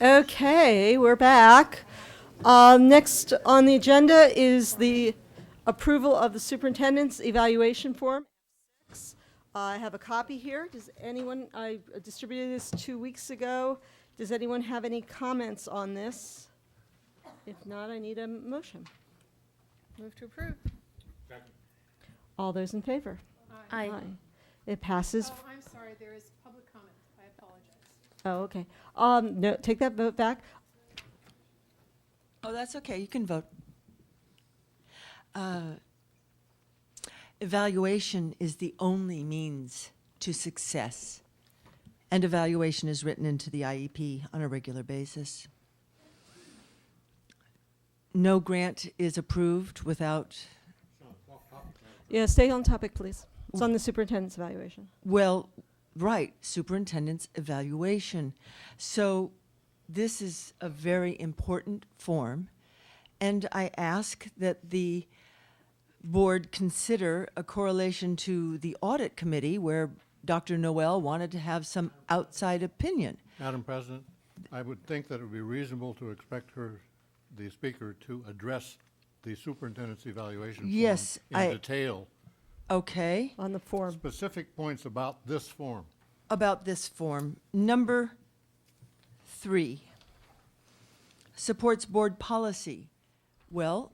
Okay, we're back. Um, Next on the agenda is the approval of the superintendent's evaluation form. Uh, I have a copy here. Does anyone, I distributed this two weeks ago. Does anyone have any comments on this? If not, I need a motion. Move to approve. All those in favor? Aye. It passes. Oh, I'm sorry, there is public comment. I apologize. Oh, okay. Um, No, take that vote back. Oh, that's okay, you can vote. Uh, Evaluation is the only means to success, and evaluation is written into the IEP on a regular basis. No grant is approved without, Yeah, stay on topic, please. It's on the superintendent's evaluation. well, right, superintendent's evaluation. So this is a very important form, and I ask that the board consider a correlation to the audit committee where Dr. Noel wanted to have some outside opinion. Madam President, I would think that it would be reasonable to expect her, the speaker, to address the superintendent's evaluation form Yes, I- in detail, Okay, on the form. specific points about this form. about this form, number three supports board policy. Well,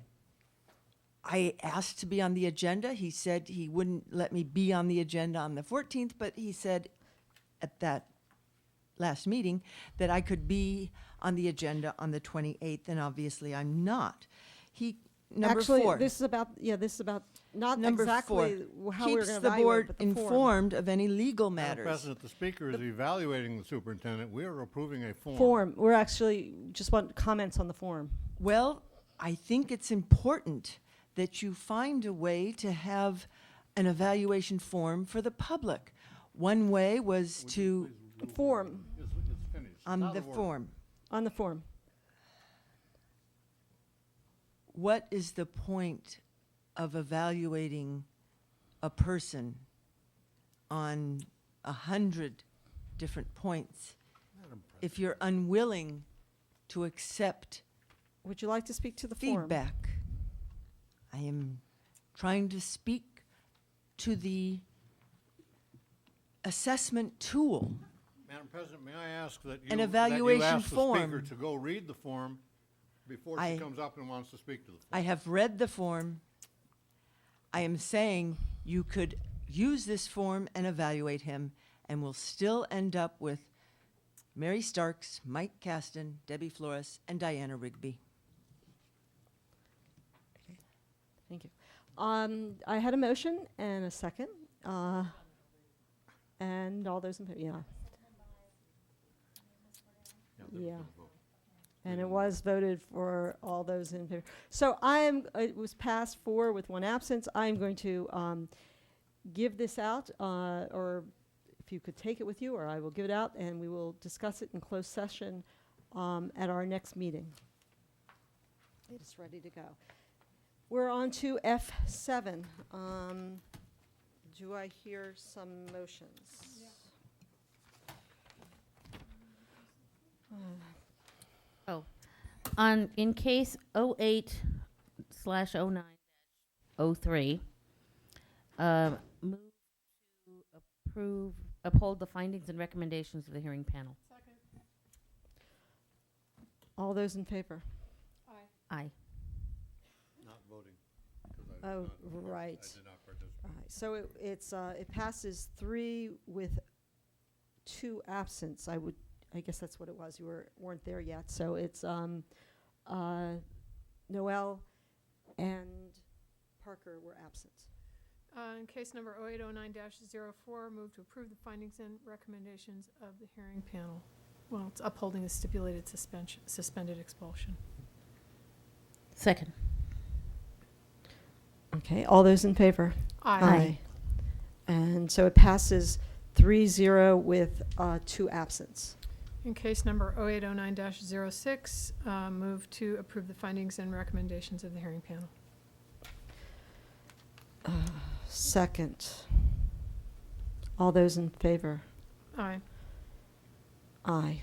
I asked to be on the agenda. He said he wouldn't let me be on the agenda on the 14th, but he said at that last meeting that I could be on the agenda on the 28th, and obviously I'm not. He, number Actually, four. this is about, yeah, this is about not Number four exactly how we're keeps going to the evaluate, board but the form. informed of any legal matters. Madam President, the speaker is evaluating the superintendent. We are approving a form. Form, we're actually, just want comments on the form. Well, I think it's important that you find a way to have an evaluation form for the public. One way was to, Form, It's it's finished. on Not the a word. form, on the form. what is the point of evaluating a person on a hundred different points if you're unwilling to accept Would you like to speak to the form? feedback. I am trying to speak to the assessment tool. Madam President, may I ask that you, An that you evaluation ask the speaker form. to go read the form before I- she comes up and wants to speak to the form? I have read the form. I am saying you could use this form and evaluate him, and we'll still end up with Mary Starks, Mike Caston, Debbie Flores, and Diana Rigby. Thank you. Um, I had a motion and a second. uh, And all those in, favor. yeah. Yeah. And it was voted for all those in favor. So I am, uh, it was passed four with one absence. I am going to um, give this out, uh, or if you could take it with you, or I will give it out, and we will discuss it in closed session um, at our next meeting. It is ready to go. We're on to F7. Um, Do I hear some motions? On, in case 08 slash 09 03, um, move to approve, uphold the findings and recommendations of the hearing panel. Second. All those in favor? Aye. Aye. Not voting. 'cause I did Oh, not- right. I did not participate. All right, so it, it's, uh, it passes three with two absence. I would, I guess that's what it was. You were, weren't there yet. So it's, um, uh, Noel and Parker were absent. Uh, In case number 0809-04, move to approve the findings and recommendations of the hearing panel. Well, it's upholding the stipulated suspension, suspended expulsion. Second. Okay, all those in favor? Aye. And so it passes three zero with, uh, two absence. In case number 0809-06, uh, move to approve the findings and recommendations of the hearing panel. Second. All those in favor? Aye. Aye.